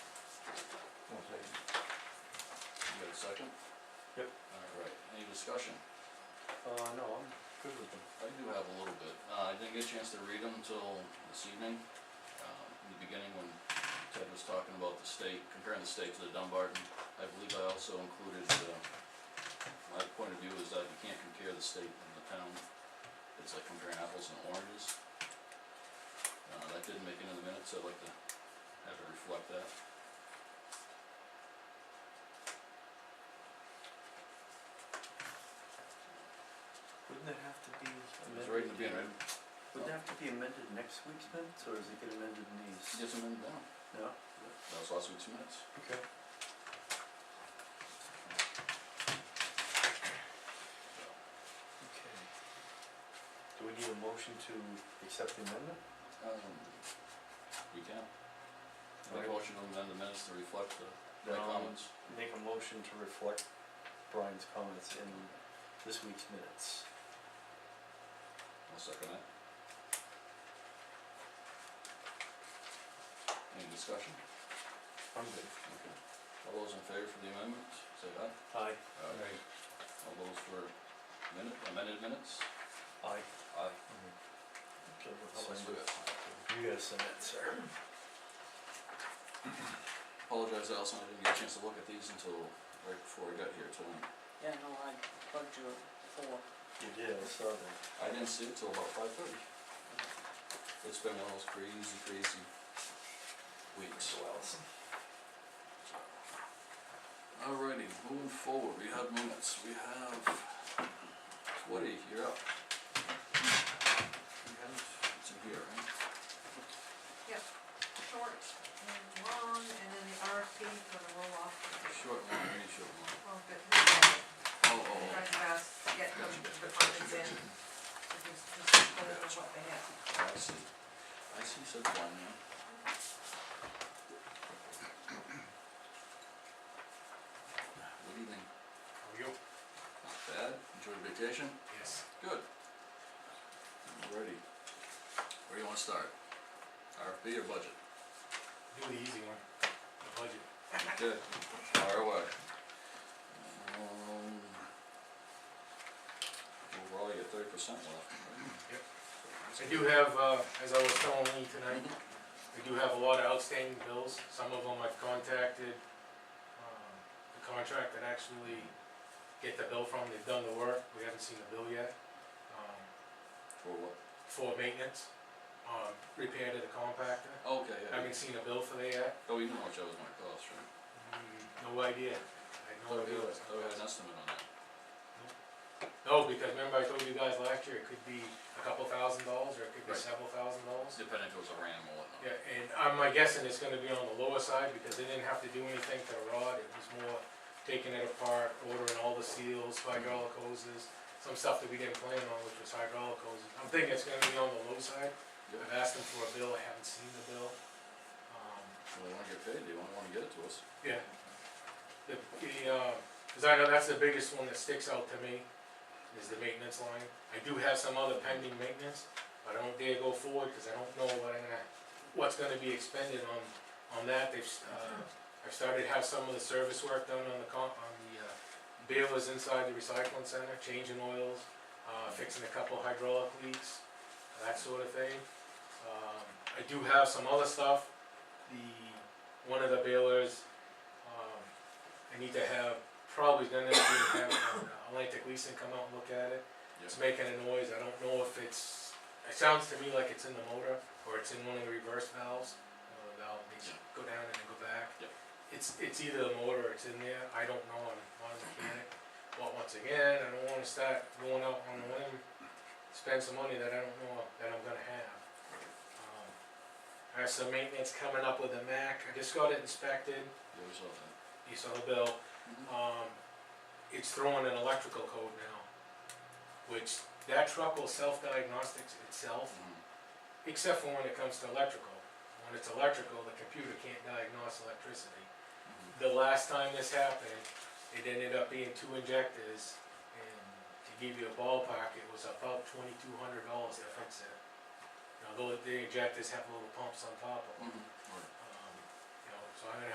Uh, second? Yep. Alright, any discussion? Uh, no, I'm good with them. I do have a little bit, uh, I didn't get a chance to read them until this evening, um, in the beginning when Ted was talking about the state, comparing the state to the Dumbarton. I believe I also included, uh, my point of view is that you can't compare the state and the town, it's like comparing apples and oranges. Uh, that didn't make it in the minutes, I'd like to have it reflect that. Wouldn't it have to be It was amended? right in the beginning, Would it have to be amended next week's minutes, or is it get amended in these? just amend it down, No? that was last week's minutes. Okay. Okay. Do we need a motion to accept the amendment? Um, you can. Make a Alright. motion to amend the minutes to reflect the, my Then I'll comments. Make a motion to reflect Brian's comments in this week's minutes. I'll second that. Any discussion? I'm good. Okay. All those in favor for the amendment, say aye. Aye. All those for minute, amended minutes? Aye. Aye. Okay, So well, let's do it. You gotta send it, sir. Apologize, Allison, I didn't get a chance to look at these until right before I got here tonight. Yeah, no, I bugged you before. You did, I saw that. I didn't see it till about five thirty. It's been one of those crazy, crazy weeks. Wells. Alrighty, moving forward, we have minutes, we have Woody, you're up. We have, it's in here, right? short and long, and then the RFP for the roll-off. Short one, we need short one. Well, but who's got it? Oh, oh, Who oh, tried to ask, get them Gotcha, gotcha, departments gotcha, in, to just, just put it on what they have. Oh, I see, I see such one now. Good evening, How are you? not bad, enjoyed your vacation? Yes. Good. Alrighty, where do you wanna start? RFP or budget? Do the easy one, the budget. Okay, fire away. Um, Overall, you got thirty percent left. Yep. That's I good. do have, uh, as I was telling Lee tonight, I do have a lot of outstanding bills, some of them I've contacted, um, the contract that actually get the bill from, they've done the work, we haven't seen the bill yet. Um, For what? for maintenance, um, repair to the compactor, Okay, I yeah, haven't seen a bill for that yet, oh, you know how much that was gonna cost, right? Mm, no idea, I had Thought no we idea. had- what's thought Oh, we had an estimate on that. No, because remember I told you guys last year, it could be a couple thousand dollars, or it could be Right. several thousand dollars. Depending if it was a ram or whatnot. Yeah, and um, I'm, my guessing it's gonna be on the lower side, because they didn't have to do anything to the rod, it was more taking it apart, ordering all the seals, hydraulic hoses, some stuff that we didn't plan on, which was hydraulic hoses. I'm thinking it's gonna be on the low side, Good. I've asked them for a bill, I haven't seen the bill. Um, Well, they wanna get paid, they wanna, wanna get it to us. yeah. The, the, uh, cause I know that's the biggest one that sticks out to me, is the maintenance line. I do have some other pending maintenance, but I don't dare go forward, cause I don't know what I'm gonna, what's gonna be expended on, on that. They've, s- uh, I've started to have some of the service work done on the con, on the, uh, balers inside the recycling center, changing oils, uh, fixing a couple hydraulic leaks, that sort of thing. Um, I do have some other stuff, the, one of the balers, um, I need to have, probably gonna need to have uh, Atlantic Leasing come out and look at it. It's making a noise, I don't know if it's, it sounds to me like it's in the motor, or it's in one of the reverse valves. Uh, the valve makes it go down and then go back. Yeah. It's, it's either the motor or it's in there, I don't know, I'm not a mechanic. But once again, I don't wanna start going out on a limb, spend some money that I don't know that I'm gonna have. Um, I have some maintenance coming up with the Mac, I just got it inspected, Yeah, we saw that. you saw the bill, um, it's throwing an electrical code now, which that truck will self-diagnostics itself, Mhm. except for when it comes to electrical. When it's electrical, the computer can't diagnose electricity. Mhm. The last time this happened, it ended up being two injectors, and to give you a ballpark, it was about twenty-two hundred dollars to fix it. Now, though the injectors have little pumps on top of them, Mhm. Alright. um, you know, so I'm gonna